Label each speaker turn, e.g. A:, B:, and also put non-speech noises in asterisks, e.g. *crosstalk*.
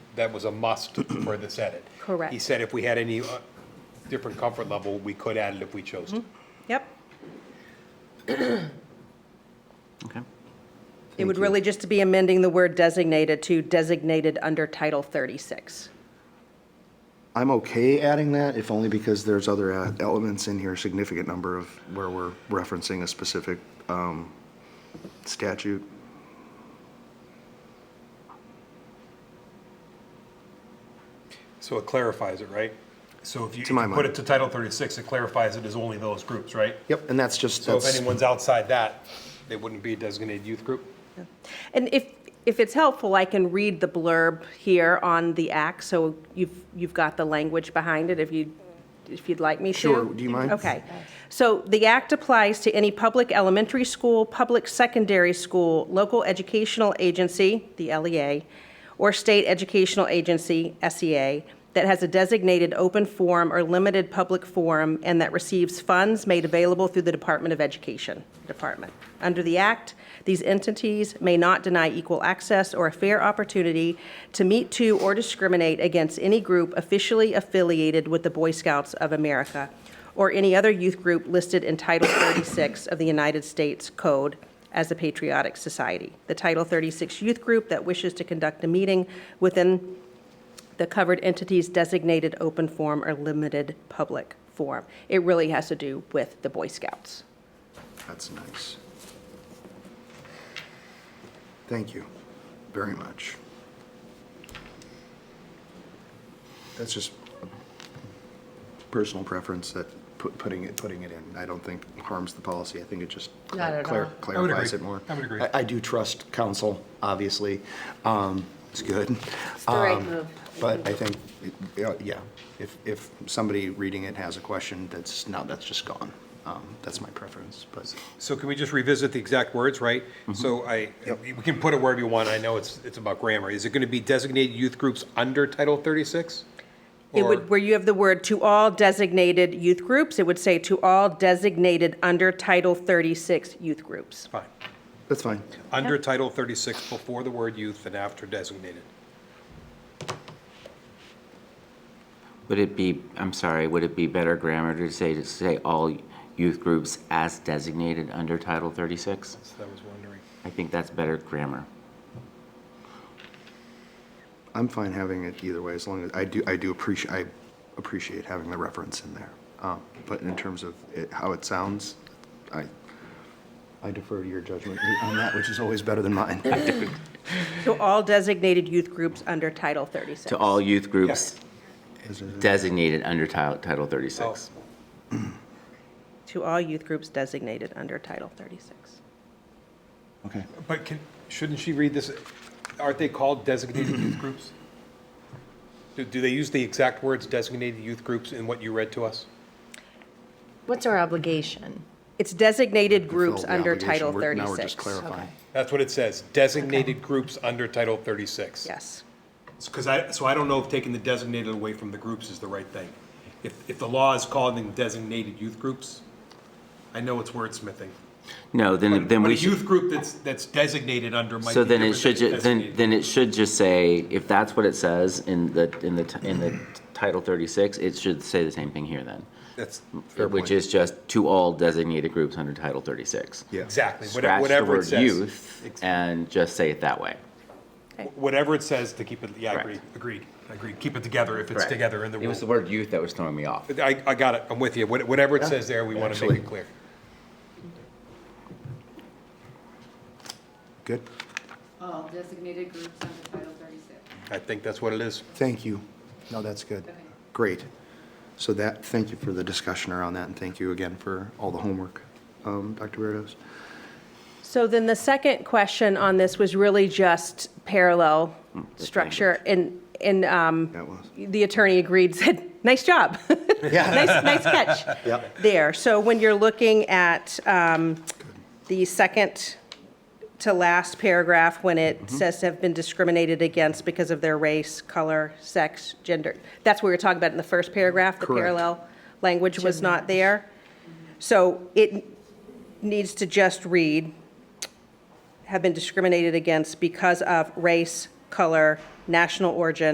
A: that was a must for this edit. He
B: *clears throat* Correct.
A: said if we had any uh, different comfort level, we could add it if we chose
B: Mm-hmm.
A: to.
B: Yep.
C: Okay.
B: It would really just be amending the word designated to designated under Title 36.
D: I'm okay adding that, if only because there's other uh, elements in here, significant number of where we're referencing a specific um, statute.
A: So it clarifies it, right? So if you if
D: To my
A: you put
D: mind.
A: it to Title 36, it clarifies it as only those groups, right?
D: Yep, and that's just,
A: So if
D: that's,
A: anyone's outside that, they wouldn't be a designated youth group?
B: And if, if it's helpful, I can read the blurb here on the act, so you've, you've got the language behind it, if you, if you'd like me to.
D: Sure, do you mind?
B: Okay. So the act applies to any public elementary school, public secondary school, local educational agency, the LEA, or state educational agency, SEA, that has a designated open forum or limited public forum and that receives funds made available through the Department of Education Department. Under the act, these entities may not deny equal access or a fair opportunity to meet to or discriminate against any group officially affiliated with the Boy Scouts of America or any other youth group listed in Title 36 of the United States Code as a patriotic society. The Title 36 youth group that wishes to conduct a meeting within the covered entity's designated open forum or limited public forum. It really has to do with the Boy Scouts.
D: that's nice. Thank you very much. That's just personal preference that put- putting it, putting it in, I don't think harms the policy. I think it just
E: Not
D: clar-
E: at
D: clar-
A: I
E: all.
A: would agree.
D: clarifies it more.
A: I would agree.
D: I do trust counsel, obviously. Um, It's good.
E: It's the right
D: Um,
E: move.
D: But I think, yeah, yeah, if, if somebody reading it has a question, that's, now that's just gone. Um, That's my preference, but.
A: So can we just revisit the exact words, right?
D: Mm-hmm.
A: So I, we can put it wherever you want, I know it's, it's about grammar. Is it going to be designated youth groups under Title 36?
B: It
A: Or-
B: would, where you have the word "to all designated youth groups," it would say "to all designated under Title 36 youth groups."
A: Fine.
D: That's fine.
A: Under Title 36, before the word youth and after designated.
C: Would it be, I'm sorry, would it be better grammar to say, to say all youth groups as designated under Title 36?
A: So I was wondering.
C: I think that's better grammar.
D: I'm fine having it either way, as long as, I do, I do appreciate, I appreciate having the reference in there. Um, But in terms of it- how it sounds, I, I defer to your judgment on that, which is always better than mine.
B: To all designated youth groups under Title 36.
C: To all youth groups
D: Is it-
C: designated under Title Title 36.
A: Oh.
B: To all youth groups designated under Title 36.
D: Okay.
A: But can, shouldn't she read this, aren't they called designated *clears throat* youth groups? Do, do they use the exact words designated youth groups in what you read to us?
E: What's our obligation?
B: It's designated groups
D: Fulfill the
B: under
D: obligation.
B: Title
D: We're- Now we're just
B: 36.
D: clarifying.
A: That's what it says, designated groups under Title 36.
B: Yes.
A: Because I, so I don't know if taking the designated away from the groups is the right thing. If, if the law is calling them designated youth groups, I know it's wordsmithing.
C: No, then, then
A: But
C: we
A: a
C: should,
A: youth group that's, that's designated under might be
C: so then it
A: different than
C: should, ju- then,
A: designated.
C: then it should just say, if that's what it says in the, in the, t- in the Title 36, it should say the same thing here then.
A: That's
C: Which
D: point.
C: is just to all designated groups under Title 36.
D: Yeah.
A: exactly, whate-
C: Scratch the
A: whatever it
C: word
A: says.
C: youth and just say it that way.
A: Whatever it says to keep it, yeah, I
C: Correct.
A: agree, agreed, I agree. Keep it together if it's
C: Correct.
A: together in the
C: It was the
A: rule.
C: word youth that was throwing me off.
A: I, I got it, I'm with you. What- Whatever it says there, we want to make
D: Actually.
A: it clear.
D: Good.
F: All designated groups under Title 36.
A: I think that's what it is.
D: Thank you. No, that's good.
F: Okay.
D: Great. So that, thank you for the discussion around that, and thank you again for all the homework, um, Dr. Berdos.
B: So then the second question on this was really just parallel
D: Hmm.
B: structure, and, and um,
D: That was.
B: the attorney agreed, said, nice job. *laughs*
D: Yeah.
B: Nice, nice catch
D: Yep.
B: there. So when you're looking at um, the second to last paragraph, when it says to have been discriminated against because of their race, color, sex, gender, that's what we were talking about in the first paragraph, the
D: Correct.
B: parallel language was not there. So it needs to just read, have been discriminated against because of race, color, national origin,